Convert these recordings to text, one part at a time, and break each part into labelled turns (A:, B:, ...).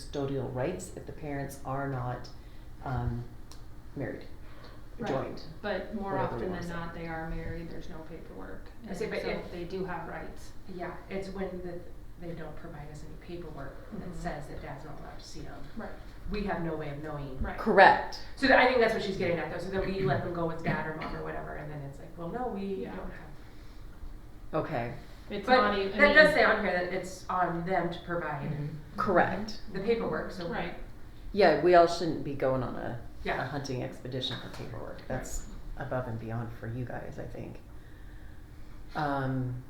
A: custodial rights if the parents are not um, married,
B: Right.
A: joined.
B: But more
A: Whatever
B: often
A: you
B: than
A: wanna
B: not, they are married, there's no paperwork,
C: I
B: and so
C: see, but if-
B: they do have rights.
C: Yeah, it's when the, they don't provide us any paperwork
B: Mhm.
C: that says that dad's not allowed to see them.
B: Right.
C: We have no way of knowing.
B: Right.
A: Correct.
C: So that, I think that's what she's getting at though, so that we let them go with dad or mom or whatever, and then it's like, well, no, we
B: Yeah.
C: don't have.
A: Okay.
B: It's
C: But
B: not even, I
C: that does
B: mean, Mm-hmm.
C: say on here that it's on them to provide
A: Correct.
C: the paperwork, so.
B: right,
A: Yeah, we all shouldn't be going on a, a
C: Yeah,
A: hunting expedition for paperwork. That's above and beyond for you guys, I think. Um,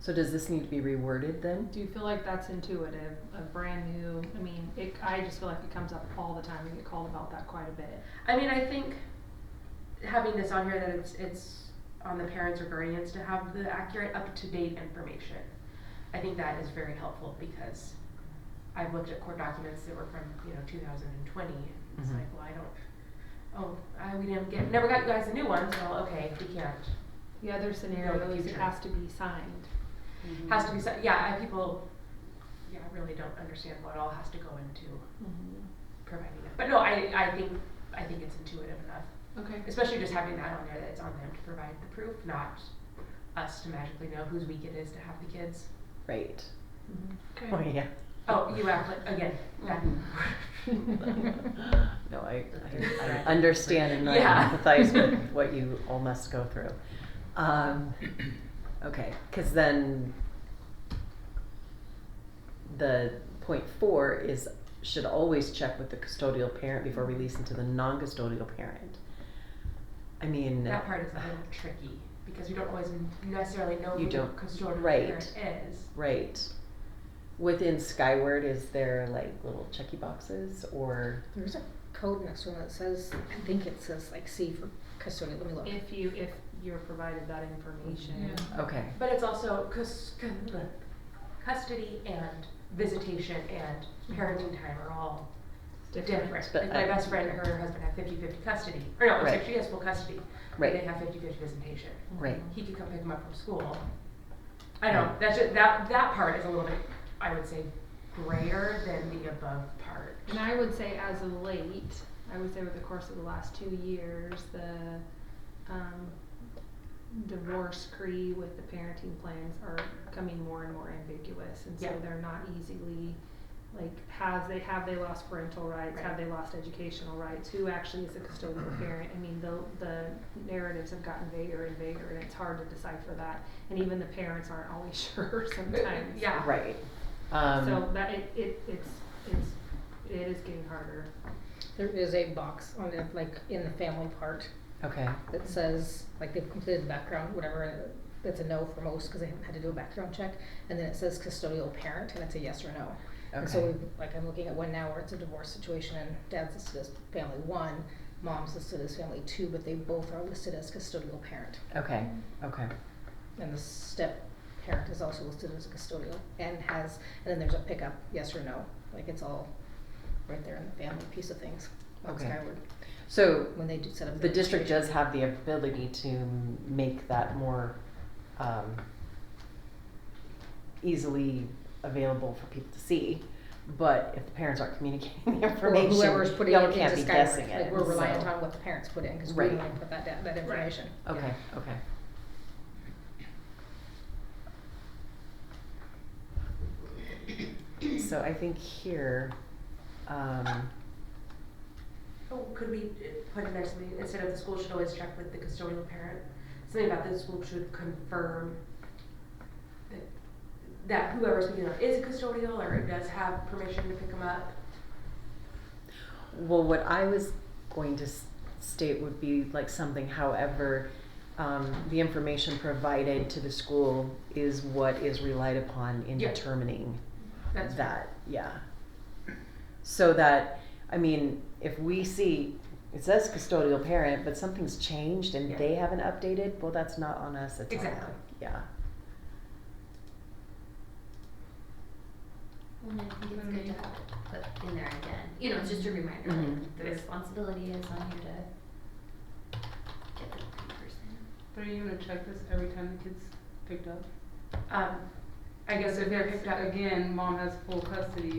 A: so does this need to be reworded then?
B: do you feel like that's intuitive, a brand new, I mean, it, I just feel like it comes up all the time, we get called about that quite a bit.
C: I mean, I think having this on here that it's, it's on the parents or guardians to have the accurate, up-to-date information. I think that is very helpful because I've looked at court documents that were from, you know, two thousand and twenty, and it's
A: Mhm.
C: like, well, I don't, oh, I, we didn't get, never got you guys a new one, so, okay, we can't.
B: The other scenario is it
C: future.
B: has to be signed,
C: Has to be, so- yeah, I, people, yeah, really don't understand what all has to go into Mm-hmm. providing that. But no, I, I think, I think it's intuitive enough.
B: okay,
C: Especially just having that on there, that it's on them to provide the proof, not us to magically know whose week it is to have the kids.
A: Right.
B: Mm-hmm.
A: Oh,
B: okay,
A: yeah.
C: Oh, you act like, again, that-
A: no, I, I, I understand and I
C: Yeah.
A: empathize with what you all must go through. Um, okay, because then the point four is should always check with the custodial parent before releasing to the non-custodial parent. I mean,
C: that part is a little tricky, because we don't always necessarily know
A: You
C: who the
A: don't-
C: custodial
A: right.
C: parent is.
A: right. Within Skyward, is there like little checky boxes or
D: There's a code next to it that says, I think it says like C for custodial, let me look.
B: if you, if you're provided that information.
D: Yeah.
A: okay?
C: But it's also cus- cu- custody and visitation and parenting time are all different.
A: But
C: Like my
A: I-
C: best friend, her and her husband have fifty-fifty custody, or no, it's like
A: Right.
C: she has full custody, but
A: Right.
C: they have fifty-fifty visitation.
A: Right.
C: he could come pick him up from school. I know that's just, that that part is a little bit, I would say, grayer than the above part.
B: And I would say as of late, I would say over the course of the last two years, the um, divorce decree with the parenting plans are becoming more and more ambiguous, and so
C: Yeah.
B: they're not easily like has they have they lost parental rights, have they lost educational rights, who actually is the custodial parent? I mean, the the narratives have gotten vaguer and vaguer, and it's hard to decipher that, and even the parents aren't always sure sometimes.
C: Yeah.
A: Right. Um,
B: So that it, it it's it's it is getting harder.
D: There is a box on it, like in the family part,
A: okay.
D: that says, like they've completed the background, whatever, that's a no for most, cause they haven't had to do a background check. And then it says custodial parent, and it's a yes or no. And so
A: Okay.
D: we, like, I'm looking at one now where it's a divorce situation and dad's listed as family one, mom's listed as family two, but they both are listed as custodial parent.
A: Okay. Okay.
D: And the step parent is also listed as a custodial and has, and then there's a pickup, yes or no, like it's all right there in the family piece of things on
A: Okay.
D: Skyward,
A: So
D: when they do set up.
A: the
D: their
A: district does
D: registration.
A: have the ability to make that more um, easily available for people to see. But if the parents aren't communicating the
D: Or
A: information,
D: whoever's putting
A: y'all
D: it
A: can't
D: into
A: be
D: Skyward,
A: guessing it.
D: like we're reliant
A: so-
D: on what the parents put in, cause we
A: Right.
D: don't wanna put that, da- that information.
A: Okay. Okay. So I think here, um,
C: Oh, could we uh, put in there something instead of the school should always check with the custodial parent? Something about the school should confirm that, that whoever's picking them up is custodial or does have permission to pick them up.
A: Well, what I was going to s- state would be like something, however, um, the information provided to the school is what is relied upon in
C: Yeah.
A: determining
C: That's
A: that, yeah. So that, I mean, if we see, it says custodial parent, but something's changed and
C: Yeah.
A: they haven't updated, well, that's not on us, it's on them.
C: Exactly.
A: Yeah,
E: And I think it's good to have it put in there again, Mm-hmm. you know, it's just a reminder,
A: Mhm.
E: like, the responsibility is on you to get the right person.
F: But are you gonna check this every time the kid's picked up?
C: Um,
E: I guess if they're picked up again, mom has full custody